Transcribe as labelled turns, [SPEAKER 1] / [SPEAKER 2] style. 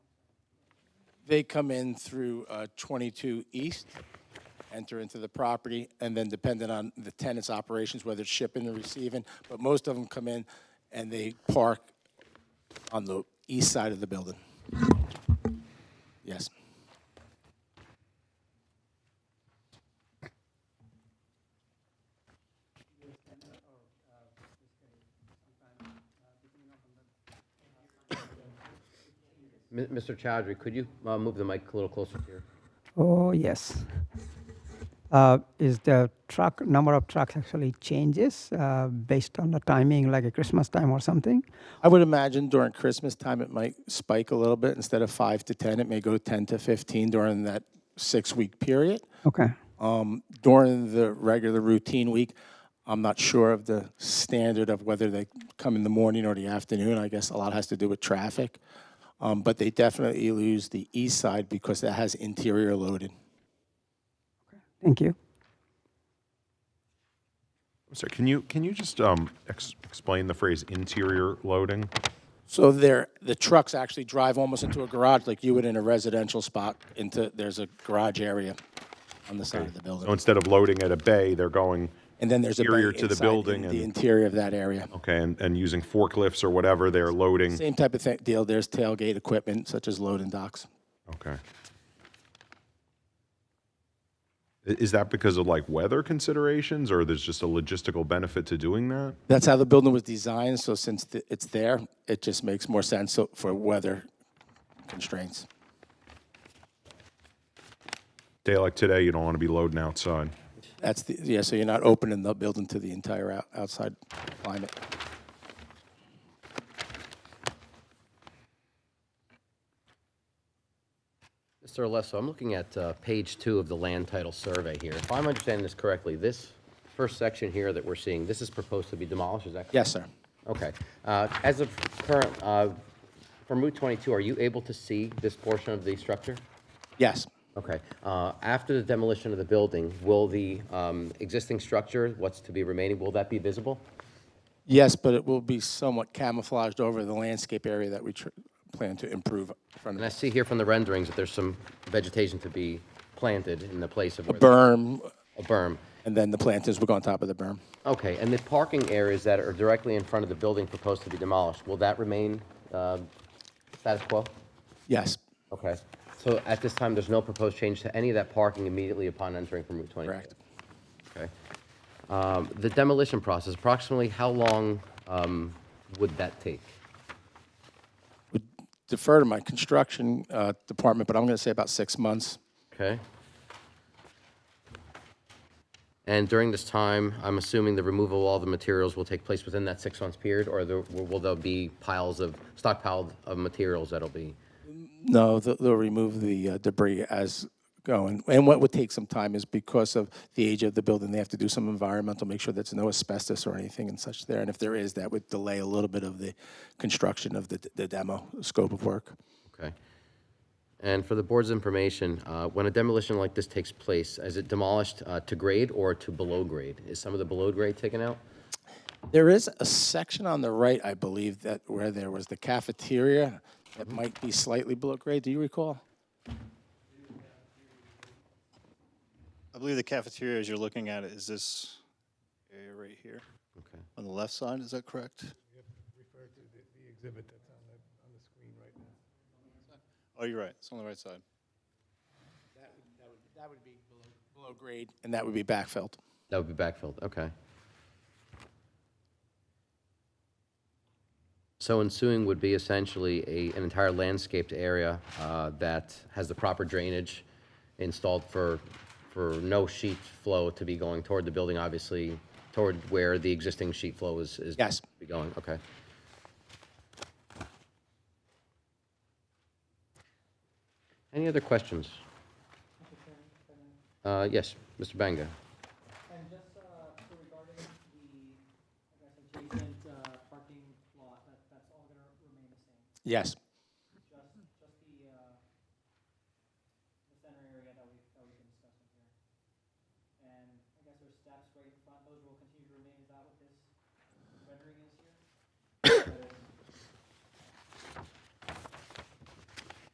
[SPEAKER 1] They come in through uh, 22 East, enter into the property, and then depending on the tenant's operations, whether it's shipping or receiving, but most of them come in and they park on the east side of the building. Yes.
[SPEAKER 2] Mi- Mr. Chowdhury, could you uh, move the mic a little closer to your?
[SPEAKER 3] Oh, yes. Uh, Is the truck, number of trucks actually changes uh, based on the timing, like a Christmas time or something?
[SPEAKER 1] I would imagine during Christmas time, it might spike a little bit. Instead of five to 10, it may go 10 to 15 during that six-week period.
[SPEAKER 3] Okay,
[SPEAKER 1] Um, During the regular routine week, I'm not sure of the standard of whether they come in the morning or the afternoon. I guess a lot has to do with traffic. Um, But they definitely lose the east side because that has interior loaded.
[SPEAKER 3] thank you.
[SPEAKER 4] Sorry, can you, can you just um, ex- explain the phrase interior loading?
[SPEAKER 1] So there, the trucks actually drive almost into a garage, like you would in a residential spot, into, there's a garage area on the side of the
[SPEAKER 4] So
[SPEAKER 1] building.
[SPEAKER 4] instead of loading at a bay, they're going,
[SPEAKER 1] And then there's a. bay
[SPEAKER 4] Interior to the
[SPEAKER 1] inside in
[SPEAKER 4] building and-
[SPEAKER 1] The interior of that area.
[SPEAKER 4] okay, and, and using forklifts or whatever, they're loading?
[SPEAKER 1] Same type of thing, deal, there's tailgate equipment such as loading docks.
[SPEAKER 4] Okay. I- Is that because of like weather considerations or there's just a logistical benefit to doing that?
[SPEAKER 1] That's how the building was designed, so since th- it's there, it just makes more sense so- for weather constraints.
[SPEAKER 4] Day like today, you don't want to be loading outside.
[SPEAKER 1] That's the, yeah, so you're not opening the building to the entire out- outside climate.
[SPEAKER 2] Mr. Alesso, I'm looking at uh, page two of the land title survey here. If I'm understanding this correctly, this first section here that we're seeing, this is proposed to be demolished, is that correct?
[SPEAKER 1] Yes, sir.
[SPEAKER 2] Okay. Uh, As of current, uh, from Route 22, are you able to see this portion of the structure?
[SPEAKER 1] Yes.
[SPEAKER 2] Okay. Uh, After the demolition of the building, will the um, existing structure, what's to be remaining, will that be visible?
[SPEAKER 1] Yes, but it will be somewhat camouflaged over the landscape area that we tr- plan to improve in front
[SPEAKER 2] And I
[SPEAKER 1] of.
[SPEAKER 2] see here from the renderings that there's some vegetation to be planted in the place of where the-
[SPEAKER 1] Berm,
[SPEAKER 2] a berm.
[SPEAKER 1] and then the planters will go on top of the berm.
[SPEAKER 2] Okay, and the parking areas that are directly in front of the building proposed to be demolished, will that remain uh, status quo?
[SPEAKER 1] Yes,
[SPEAKER 2] Okay, so at this time, there's no proposed change to any of that parking immediately upon entering from Route 20?
[SPEAKER 1] correct.
[SPEAKER 2] Okay. Um, The demolition process, approximately how long um, would that take?
[SPEAKER 1] Would defer to my construction uh, department, but I'm going to say about six months.
[SPEAKER 2] Okay? And during this time, I'm assuming the removal of all the materials will take place within that six months period, or there- will there be piles of, stockpiled of materials that'll be?
[SPEAKER 1] No, they'll, they'll remove the uh, debris as going. And what would take some time is because of the age of the building, they have to do some environmental, make sure there's no asbestos or anything and such there. And if there is, that would delay a little bit of the construction of the, the demo scope of work.
[SPEAKER 2] Okay. And for the board's information, uh, when a demolition like this takes place, is it demolished uh, to grade or to below grade? Is some of the below grade taken out?
[SPEAKER 1] There is a section on the right, I believe, that where there was the cafeteria that might be slightly below grade. Do you recall?
[SPEAKER 5] I believe the cafeteria as you're looking at it is this area right here
[SPEAKER 2] Okay.
[SPEAKER 5] on the left side. Is that correct? Refer to the, exhibit that's on the, on the screen right now. Oh, you're right. It's on the right side.
[SPEAKER 1] That would be below, below grade. And that would be backfilled.
[SPEAKER 2] That would be backfilled, okay. So ensuing would be essentially a, an entire landscaped area uh, that has the proper drainage installed for, for no sheet flow to be going toward the building, obviously, toward where the existing sheet flow is, is
[SPEAKER 1] Yes.
[SPEAKER 2] be going, okay. Any other questions? Uh, Yes, Mr. Banga?
[SPEAKER 6] And just uh, so regarding the, I guess, adjacent uh, parking lot, that, that's all gonna remain the same?
[SPEAKER 1] Yes.
[SPEAKER 6] Just, just the, uh, the center area that we, that we've been discussing here? And I guess there's steps right in front, those will continue to remain, is that what this rendering is here? That is